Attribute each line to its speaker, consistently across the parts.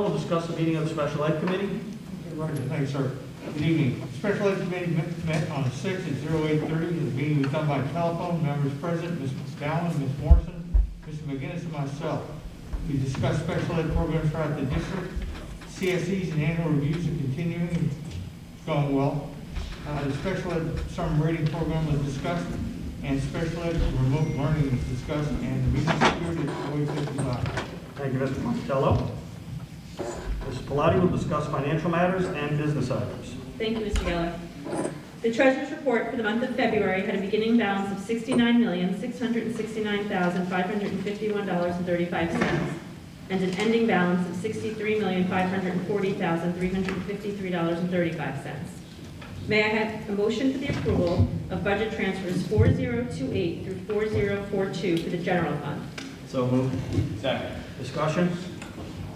Speaker 1: We'll discuss the meeting of the special ed committee.
Speaker 2: Roger, thank you, sir. Good evening. Special Ed Committee met- met on six at zero eight thirty. The meeting was done by telephone. Members present, Ms. Dowling, Ms. Morrison, Mr. McGinnis, and myself. We discussed special ed programs throughout the district, CSEs and annual reviews are continuing, and it's going well. Uh, the special ed summer reading program was discussed, and special ed remote learning was discussed, and the meeting secured at eight fifty-five.
Speaker 1: Thank you, Mr. Monticello. Mrs. Pilati will discuss financial matters and business items.
Speaker 3: Thank you, Mr. Geller. The treasurer's report for the month of February had a beginning balance of $69,669,551.35 and an ending balance of $63,540,353.35. May I have a motion for the approval of budget transfers 4028 through 4042 for the general fund?
Speaker 4: So moved. Second.
Speaker 1: Discussion?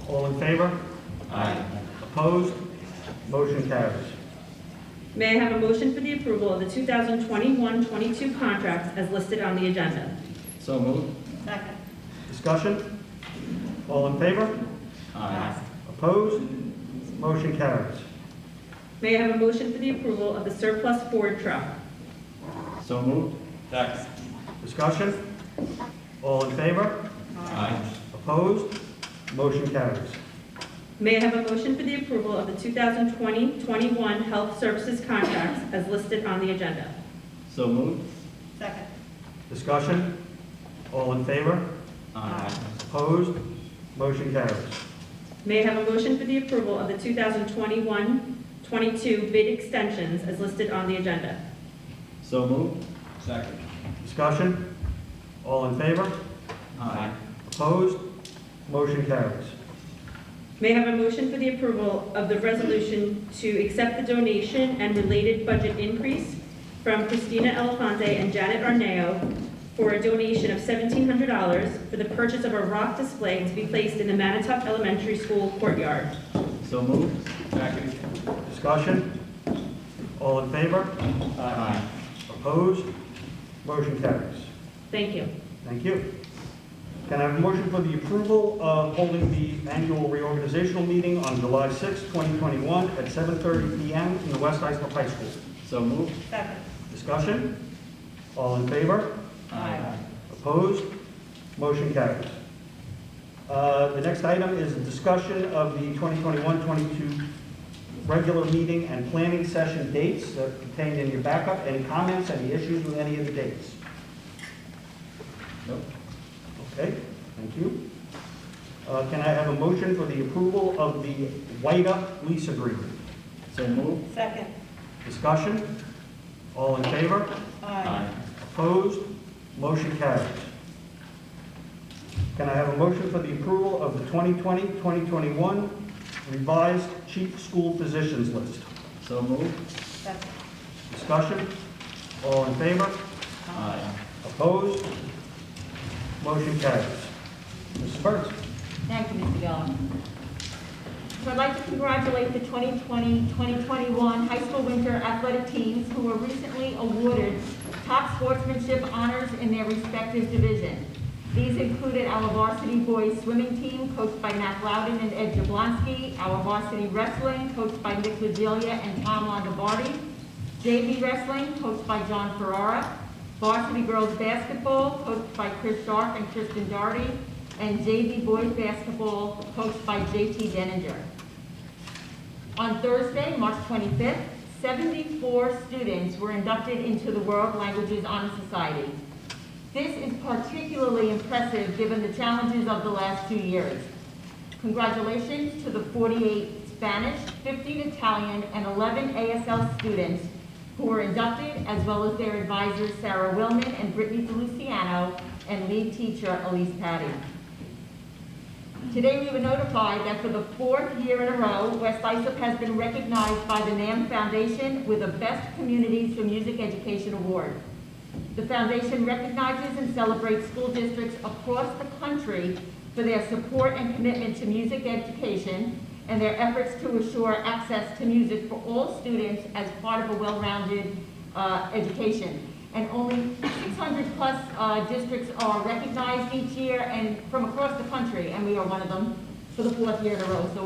Speaker 1: All in favor?
Speaker 4: Aye.
Speaker 1: Opposed? Motion carries.
Speaker 3: May I have a motion for the approval of the 2021-22 contracts as listed on the agenda?
Speaker 4: So moved.
Speaker 3: Second.
Speaker 1: Discussion? All in favor?
Speaker 4: Aye.
Speaker 1: Opposed? Motion carries.
Speaker 3: May I have a motion for the approval of the surplus Ford truck?
Speaker 4: So moved. Second.
Speaker 1: Discussion? All in favor?
Speaker 4: Aye.
Speaker 1: Opposed? Motion carries.
Speaker 3: May I have a motion for the approval of the 2020-21 health services contracts as listed on the agenda?
Speaker 4: So moved.
Speaker 3: Second.
Speaker 1: Discussion? All in favor?
Speaker 4: Aye.
Speaker 1: Opposed? Motion carries.
Speaker 3: May I have a motion for the approval of the 2021-22 bid extensions as listed on the agenda?
Speaker 4: So moved. Second.
Speaker 1: Discussion? All in favor?
Speaker 4: Aye.
Speaker 1: Opposed? Motion carries.
Speaker 3: May I have a motion for the approval of the resolution to accept the donation and related budget increase from Christina Elafante and Janet Arneo for a donation of $1,700 for the purchase of a rock display to be placed in the Manitowoc Elementary School courtyard?
Speaker 4: So moved. Second.
Speaker 1: Discussion? All in favor?
Speaker 4: Aye.
Speaker 1: Opposed? Motion carries.
Speaker 3: Thank you.
Speaker 1: Thank you. Can I have a motion for the approval of holding the annual reorganizational meeting on July 6, 2021 at 7:30 PM in the West Islip High School?
Speaker 4: So moved.
Speaker 1: Discussion? All in favor?
Speaker 4: Aye.
Speaker 1: Opposed? Motion carries. Uh, The next item is a discussion of the 2021-22 regular meeting and planning session dates that are contained in your backup. Any comments, any issues with any of the dates?
Speaker 4: Nope.
Speaker 1: Okay, thank you. Uh, Can I have a motion for the approval of the White Up lease agreement?
Speaker 4: So moved.
Speaker 5: Second.
Speaker 1: Discussion? All in favor?
Speaker 4: Aye.
Speaker 1: Opposed? Motion carries. Can I have a motion for the approval of the 2020-2021 revised chief school physicians list?
Speaker 4: So moved.
Speaker 5: Second.
Speaker 1: Discussion? All in favor?
Speaker 4: Aye.
Speaker 1: Opposed? Motion carries. Mrs. Burns?
Speaker 5: Thank you, Mr. Geller. So I'd like to congratulate the 2020-2021 high school winter athletic teams who were recently awarded top sportsmanship honors in their respective division. These included our varsity boys swimming team coached by Matt Loudon and Ed Jablonski, our varsity wrestling coached by Nick Vigilia and Tom Longobardi, JV wrestling, coached by John Ferrara. Varsity girls basketball, coached by Chris Sharp and Kristen Doherty. And JV boys basketball, coached by JT Denninger. On Thursday, March 25th, 74 students were inducted into the World Languages Honor Society. This is particularly impressive given the challenges of the last two years. Congratulations to the 48 Spanish, 15 Italian, and 11 ASL students who were inducted, as well as their advisors Sarah Wilman and Brittany Feliciano, and lead teacher Elise Patty. Today, we were notified that for the fourth year in a row, West Islip has been recognized by the NAM Foundation with the Best Communities for Music Education Award. The foundation recognizes and celebrates school districts across the country for their support and commitment to music education and their efforts to assure access to music for all students as part of a well-rounded uh, education. And only 600-plus uh, districts are recognized each year and from across the country, and we are one of them for the fourth year in a row. So